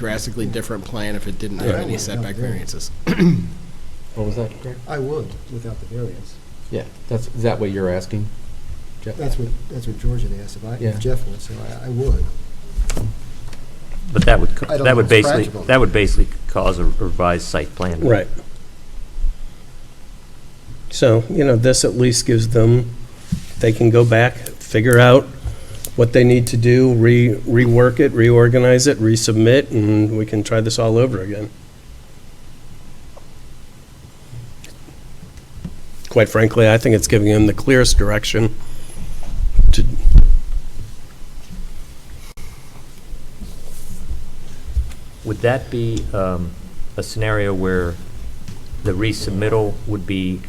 drastically different plan if it didn't have any setback variances. What was that, Greg? I would, without the variance. Yeah, that's, is that what you're asking? Jeff? That's what, that's what George had asked, if I, Yeah. if Jeff would, so I, I would. But that would, I co- don't that know would if it's basically, practical. that would basically cause a revised site plan. Right. So, you know, this at least gives them, they can go back, figure out what they need to do, re, rework it, reorganize it, resubmit, and we can try this all over again. Quite frankly, I think it's giving them the clearest direction to, Would that be um, a scenario where the resubmittal would be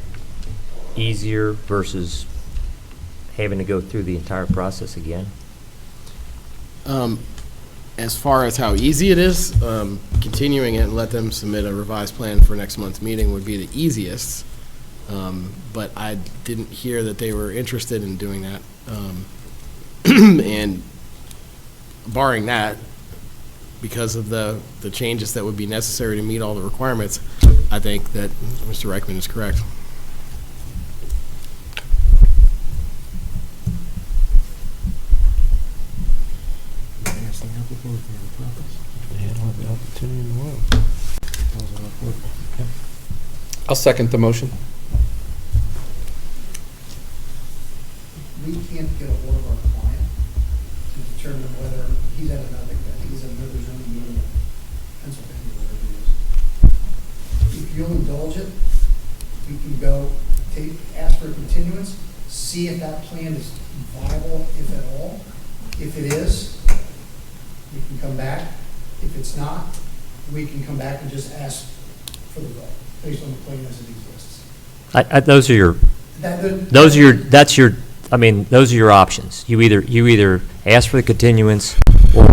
easier versus having to go through the entire process again? Um, As far as how easy it is, um, continuing it and let them submit a revised plan for next month's meeting would be the easiest. Um, But I didn't hear that they were interested in doing that. Um, And barring that, because of the, the changes that would be necessary to meet all the requirements, I think that Mr. Reichman is correct. I asked the applicant if they had a problem. That was all I would. I'll second the motion. we can't get a hold of our client to determine whether he's at another, I think he's at another zoning meeting in Pennsylvania, whatever it is. If you'll indulge it, we can go take, ask for a continuance, see if that plan is viable, if at all. If it is, we can come back. If it's not, we can come back and just ask for the vote based on the plan as it exists. I- I- Those are your, That- that- those are your, that's your, I mean, those are your options. You either, you either ask for the continuance, or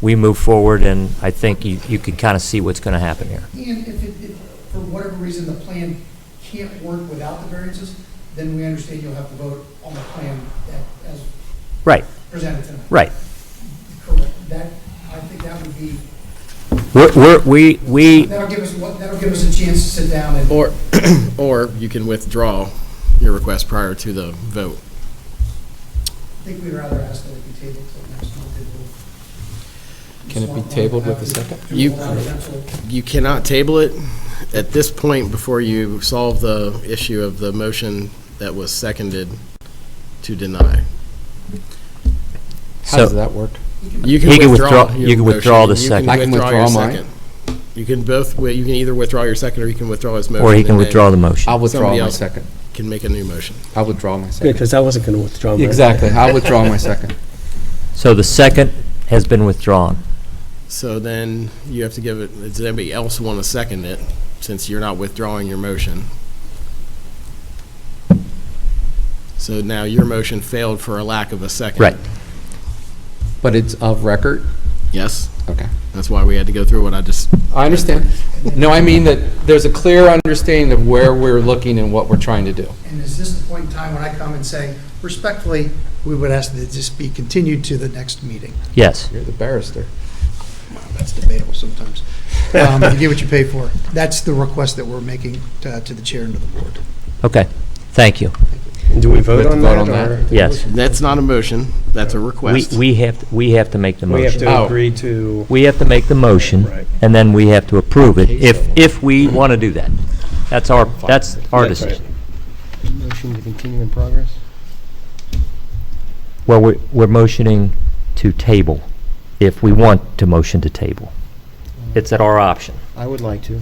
we move forward, and I think you you can kind of see what's going to happen here. And if it, if, for whatever reason, the plan can't work without the variances, then we understand you'll have to vote on the plan that, as Right, presented tonight. right. Correct. That, I think that would be, We're- we're- We, we, that'll give us, what that'll give us a chance to sit down and. Or, or you can withdraw your request prior to the vote. I think we'd rather ask that it be tabled till next month. It will- Can it be tabled with a second? You- Allow council- you cannot table it at this point before you solve the issue of the motion that was seconded to deny. So- How does that work? You can He can withdraw. withdraw- your you can withdraw the motion. You second. I can your withdraw mine. second. You can both, wi- you can either withdraw your second or you can withdraw his motion. or he can and then withdraw the motion. I'll withdraw Somebody my else. second. Can make a new motion. I'll withdraw my second. because I wasn't going to withdraw my. Exactly, I'll withdraw my second. So the second has been withdrawn. So then you have to give it, does anybody else want to second it, since you're not withdrawing your motion? So now your motion failed for a lack of a second. Right. But it's of record? Yes? Okay. That's why we had to go through what I just I understand. No, I mean that there's a clear understanding of where we're looking and what we're trying to do. And is this the point in time when I come and say, respectfully, we would ask that this be continued to the next meeting? Yes. You're the barrister. That's debatable sometimes. Um, You get what you pay for. That's the request that we're making uh, to the chair and to the board. Okay. Thank you. Do we We vote have to on vote that? on that. or- Yes. That's not a motion, that's a We, request. we have, we have to make the We have motion. to Oh. agree to. We have to make the motion, Right. and then we have to approve it, if, if we want to do that. That's our, that's our decision. Motion to continue in progress? Well, we're, we're motioning to table, if we want to motion to table. It's at our option. I would like to.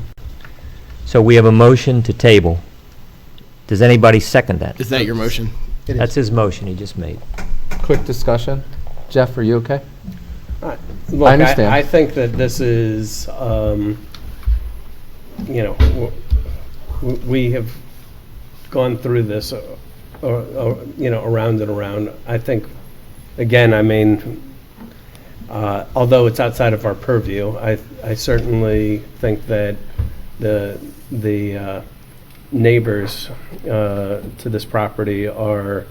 So we have a motion to table. Does anybody second that? Is that your motion? That's his motion he just made. Quick discussion. Jeff, are you okay? Look, I understand. I think that this is, um, you know, w- w- we have gone through this, uh, or, or, you know, around and around. I think, again, I mean, uh, although it's outside of our purview, I, I certainly think that the, the uh, neighbors uh, to this property are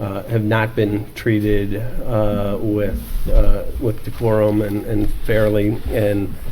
uh, have not been treated uh, with, uh, with decorum and and fairly, and